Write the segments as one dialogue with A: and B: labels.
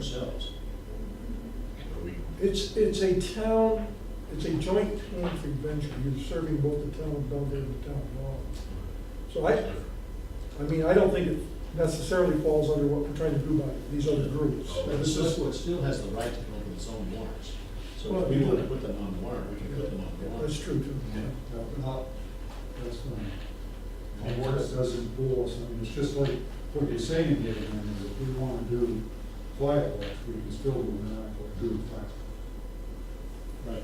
A: ourselves.
B: Are we-
C: It's, it's a town, it's a joint town convention, you're serving both the town of Belgrade and the town of Laurel. So I, I mean, I don't think it necessarily falls under what we're trying to do by these other groups.
A: But the select board still has the right to go over its own warrants. So if we want to put them on the warrant, we can put them on the
C: Yeah,
A: warrant.
C: That's true too.
D: No, not, that's not, a warrant doesn't rule us, I mean, it's just like what you're saying here, I mean, if we wanna do quiet watch, we can still do an act or do a fact.
A: Right.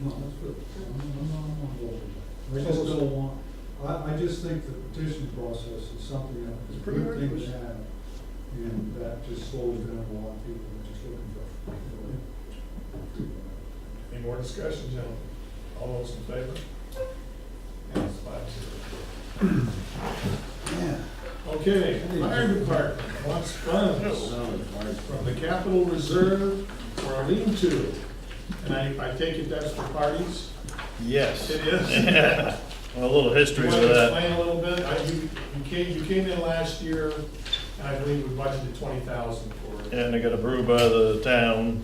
D: No, that's good, I'm, I'm, I'm voting that. I just don't want, I, I just think the petition process is something that is
C: It's
D: a
C: pretty
D: good thing
C: rigorous.
D: to have, and that just slows down a lot of people that are just looking for.
E: Any more discussion, gentlemen? All those in favor? And it's five zero. Okay, fire department wants funds
A: So, if I-
E: from the capital reserve for a lean-to. And I, I take it that's for parties?
F: Yes.
E: It is.
F: Well, a little
E: Do
F: history
E: you
F: of
E: want to
F: that.
E: explain a little bit? I- You, you came, you came in last year, and I believe we budgeted twenty thousand for it.
F: And it got approved by the town,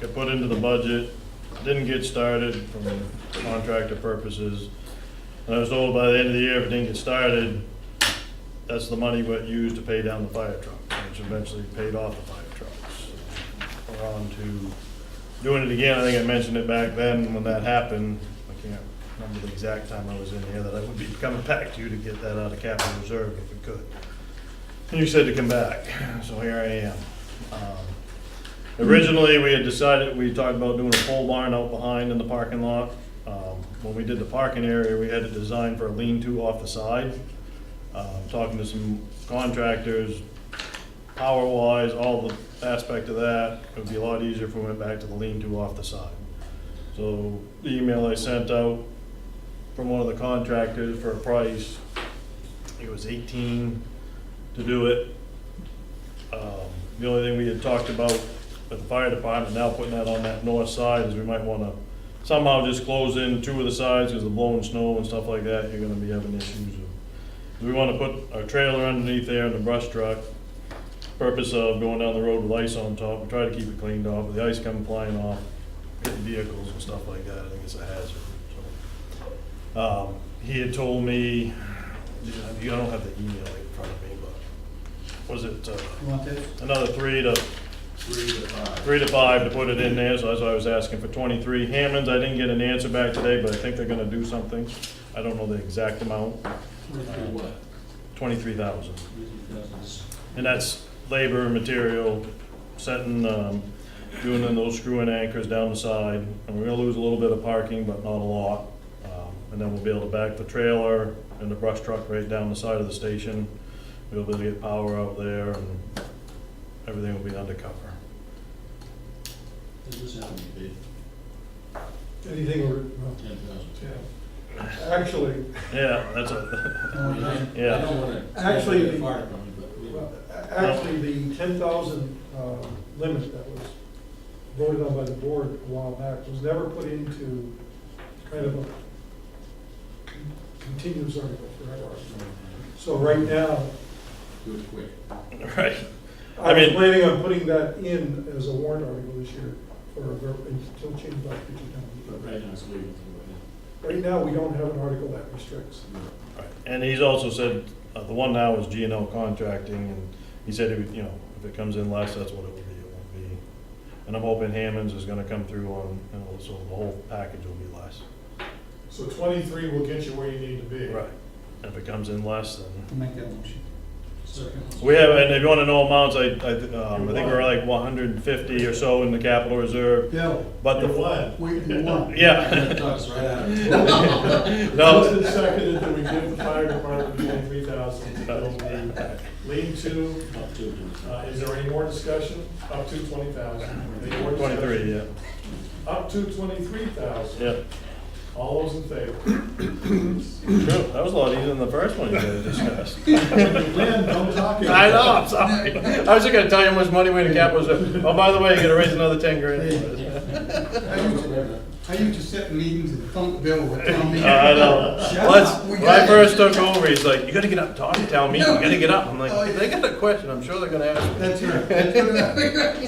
F: got put into the budget, didn't get started from contractor purposes. And I was told by the end of the year, if it didn't get started, that's the money what used to pay down the fire truck, which eventually paid off the fire trucks. We're on to doing it again. I think I mentioned it back then when that happened. I can't remember the exact time I was in here, that I would be coming back to you to get that out of capital reserve if we could. And you said to come back, so here I am. Um, Originally, we had decided, we talked about doing a pole barn out behind in the parking lot. Um, When we did the parking area, we had it designed for a lean-to off the side. Um, Talking to some contractors, power-wise, all the aspect of that, it would be a lot easier if we went back to the lean-to off the side. So the email I sent out from one of the contractors for a price, it was eighteen to do it. Um, The only thing we had talked about with the fire department, now putting that on that north side, is we might wanna somehow just close in two of the sides, because the blowing snow and stuff like that, you're gonna be having issues. of- We wanna put our trailer underneath there and the brush truck, purpose of going down the road with ice on top, we try to keep it cleaned off, but the ice come flying off, hitting vehicles and stuff like that, I think it's a hazard, so. Um, He had told me, I don't have the email in front of me, but was it, uh,
D: You want this?
F: another three to,
E: Three to five.
F: three to five to put it in there, so that's why I was asking for twenty-three. Hammond's, I didn't get an answer back today, but I think they're gonna do something. I don't know the exact amount,
A: Twenty-three what?
F: twenty-three thousand.
A: Twenty-three thousand is-
F: And that's labor, material, setting, um, doing in those screw-in anchors down the side. And we're gonna lose a little bit of parking, but not a lot. Um, And then we'll be able to back the trailer and the brush truck right down the side of the station. We'll be able to get power out there and everything will be undercover.
A: This is how we bid,
C: Anything over, well,
A: ten thousand.
C: actually,
F: Yeah, that's a,
A: I mean, I- I
F: Yeah.
A: don't want to.
C: Actually, the-
A: Fire department, but we.
C: well, a- actually, the ten thousand, uh, limit that was voted on by the board a while back was never put into kind of a con- continuous article forever. So right now,
A: Do it quick.
F: right.
C: I
F: I
C: was
F: mean-
C: planning on putting that in as a warrant article this year, or a ver- until change by future town
A: But
C: meeting.
A: right now, it's legal to
C: Right now, we don't have an article that restricts.
A: go ahead.
F: And he's also said, uh, the one now is G and L Contracting, and he said, it would, you know, if it comes in less, that's what it would be, it won't be. And I'm hoping Hammond's is gonna come through on, you know, so the whole package will be less.
E: So twenty-three will get you where you need to be.
F: If it comes in less, then,
D: Make that motion.
A: Second.
F: we have, and if you wanna know amounts, I, I, th- um, I think we're like one hundred and fifty or so in the capital reserve,
D: Bill,
F: but the.
E: You won.
D: we, you won.
F: Yeah.
A: Talks right out of it.
F: No,
E: Motion seconded that we give the fire department twenty-three thousand to build the lean-to.
A: Up to it.
E: Uh, Is there any more discussion? Up to twenty thousand.
F: twenty-three, yeah,
E: Up to twenty-three thousand.
F: yeah.
E: All those in favor?
F: True, that was a lot easier than the first one you guys discussed.
E: Lynn, don't talk.
F: I know, I'm sorry. I was just gonna tell you how much money we in the cap was. Oh, by the way, you gotta raise another ten grand.
D: I used to, I used to sit in meetings and thump Bill with town meeting.
F: Uh, I know.
D: Shut
F: Let's,
D: up, we
F: when
D: got
F: I
D: it.
F: first took over, he's like, you gotta get
D: Oh,
F: up, talk to town meeting, you gotta get up. I'm like, they got a question, I'm sure they're gonna ask me.
D: That's right. That's what it is.